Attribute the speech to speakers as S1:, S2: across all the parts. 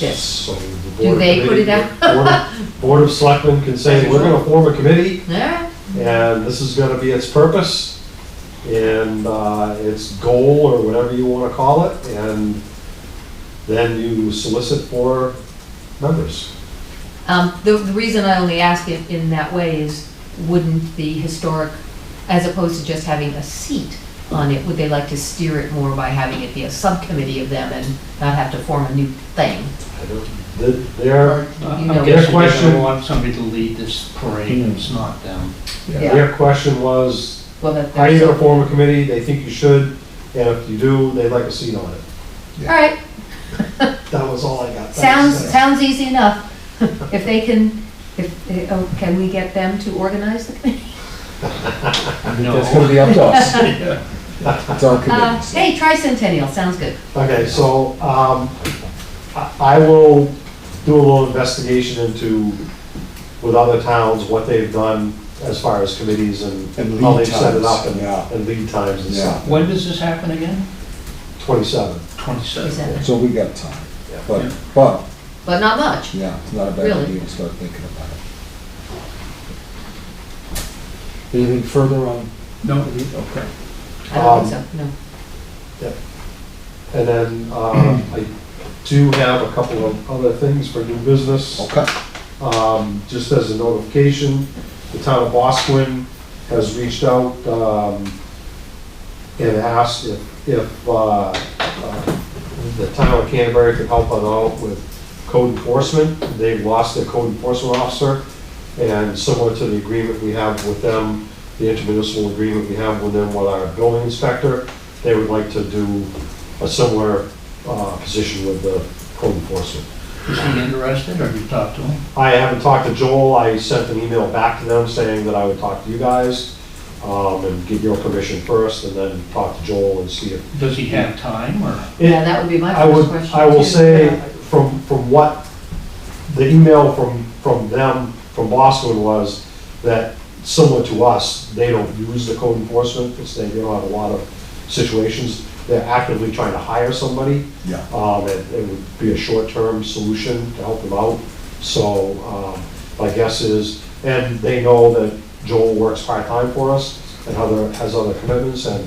S1: Yes.
S2: So the
S1: Do
S2: Board of
S1: they put
S2: Committee-
S1: it out?
S2: Board of- Board of Selectmen can say, we're gonna form a committee,
S1: Yeah,
S2: and this is gonna be its purpose, and uh, its goal, or whatever you wanna call it, and then you solicit for members.
S1: um, the, the reason I only ask it in that way is, wouldn't the historic, as opposed to just having a seat on it, would they like to steer it more by having it be a subcommittee of them and not have to form a new thing?
S2: I don't- th- Their,
S1: Or do you
S3: I'm
S1: know-
S2: guess-
S3: guessing they're gonna want somebody to lead this parade, it's not them.
S1: Yeah,
S2: their question was,
S1: well, that-
S2: how are you gonna
S1: that's-
S2: form a committee? They think you should, and if you do, they'd like a seat on it.
S1: All right,
S2: That was all I got.
S1: Sounds,
S2: Thanks.
S1: sounds easy enough. If they can, if, eh, oh, can we get them to organize the committee?
S4: That's gonna
S3: No.
S4: be up to us. It's our
S1: Uh,
S4: committee.
S1: Hey, tricentennial, sounds good.
S2: Okay, so, um, I, I will do a little investigation into, with other towns, what they've done as far as committees and
S4: And
S2: how
S4: lead
S2: they've set it up
S4: times,
S2: and,
S4: yeah.
S2: and lead times and stuff.
S3: When does this happen again?
S2: Twenty-seven.
S3: Twenty-seven.
S1: Present.
S4: So we got time,
S2: Yeah.
S3: Yeah.
S4: but, but,
S1: But not much.
S4: yeah, it's not a bad
S1: Really?
S4: idea to start thinking about it. Anything further on?
S3: No, okay.
S1: I don't
S2: Um,
S1: think so, no.
S2: And then, um, I do have a couple of other things for new business.
S4: Okay.
S2: Um, just as a notification, the town of Bosquen has reached out, um, and asked if, if, uh, uh, the town of Canterbury could help them out with code enforcement. They've lost their code enforcement officer, and similar to the agreement we have with them, the intermunicipal agreement we have with them with our building inspector, they would like to do a similar, uh, position with the code enforcement.
S3: Is he interested, or have you talked to him?
S2: I haven't talked to Joel, I sent an email back to them saying that I would talk to you guys, um, and get your permission first, and then talk to Joel and see if.
S3: Does he have time, or?
S1: Yeah, that would be my
S2: I
S1: first
S2: would,
S1: question.
S2: I will
S1: too.
S2: say, from, from what, the email from, from them, from Boston was, that similar to us, they don't use the code enforcement, because they don't have a lot of situations, they're actively trying to hire somebody,
S4: Yeah.
S2: um, it, it would be a short-term solution to help them out. So, um, my guess is, and they know that Joel works part-time for us and other, has other commitments and,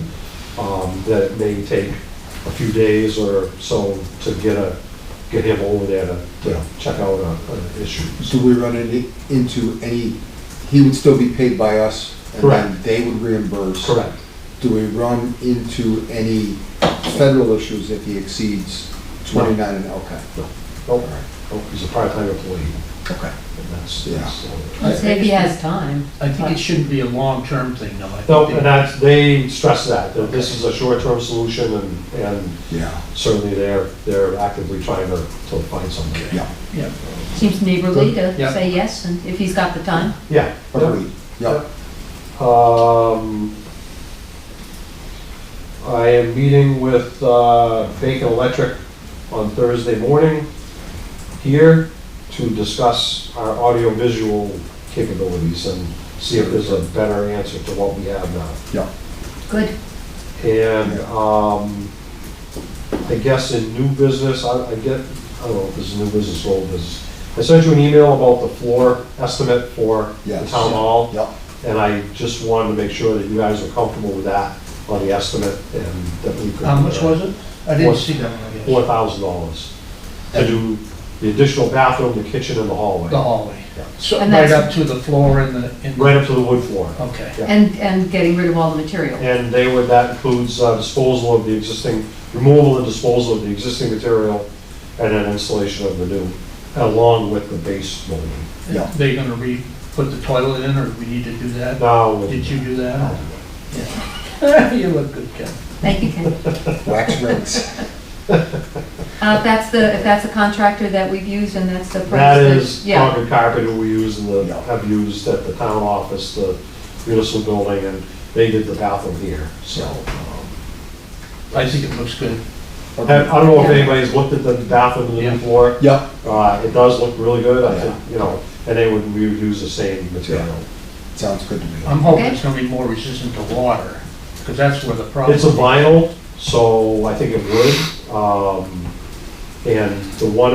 S2: um, that it may take a few days or so to get a, get him over there to, to check out a, an issue.
S4: Do we run into, into any, he would still be paid by us? And
S2: Correct.
S4: then they would reimburse?
S2: Correct.
S4: Do we run into any federal issues if he exceeds twenty-nine and, okay?
S2: Nope, nope, he's a part-time employee
S4: Okay.
S2: and that's,
S4: Yeah.
S2: that's. uh,
S1: Let's say if he has time.
S3: I think it shouldn't be a long-term thing, though. I
S2: No,
S3: think
S2: and
S3: they-
S2: that's, they stress that, that this is a short-term solution and, and
S4: Yeah,
S2: certainly they're, they're actively trying to, to find something.
S4: yeah,
S3: Yeah,
S1: Seems neighborly to
S3: Yeah.
S1: say yes, and if he's got the time.
S2: Yeah.
S4: agreed, yeah.
S2: Um, I am meeting with uh, Bacon Electric on Thursday morning here to discuss our audiovisual capabilities and see if there's a better answer to what we have now.
S1: Good.
S2: And,
S4: Yeah.
S2: um, I guess in new business, I, I get, I don't know if this is new business or old business. I sent you an email about the floor estimate for the
S4: Yes.
S2: town hall.
S4: Yep.
S2: And I just wanted to make sure that you guys were comfortable with that on the estimate and that we could.
S3: how much was it? I
S2: Four-
S3: didn't see that one, I guess.
S2: Four thousand dollars to do the additional bathroom, the kitchen and the
S3: The
S2: hallway,
S3: hallway.
S2: Yeah.
S3: So,
S1: And
S3: right
S1: that's-
S3: up to the floor in the, in the,
S2: right up to the wood floor.
S3: okay.
S2: Yeah.
S1: And, and getting rid of all the material.
S2: And they would, that includes uh, disposal of the existing, removal and disposal of the existing material, and then installation of the new, along with the base molding.
S4: Yeah.
S3: They gonna re, put the toilet in, or we need to do that?
S2: Now,
S3: Did
S2: with-
S3: you do that? or- You look good, Ken.
S1: Thank you, Ken.
S4: Wax rings.
S1: Uh, if that's the, if that's the contractor that we've used and that's the price.
S2: that
S1: then-
S2: is
S1: Yeah,
S2: concrete carpet who we use in the,
S4: Yeah.
S2: have used at the town office, the municipal building, and they did the bathroom here, so. um,
S3: I think it looks good.
S2: I I don't know if
S1: Yeah.
S2: anybody's looked at the bathroom in the
S3: Yeah.
S2: new floor.
S4: Yeah,
S2: Uh, It does look really good, I
S4: Yeah.
S2: think, you know, and they would, we would use the same material.
S4: sounds good to me.
S3: I'm hoping
S1: Okay.
S3: it's gonna be more resistant to water, because that's where the problem
S2: It's
S3: is.
S2: a vinyl, so I think it would. Um, And the one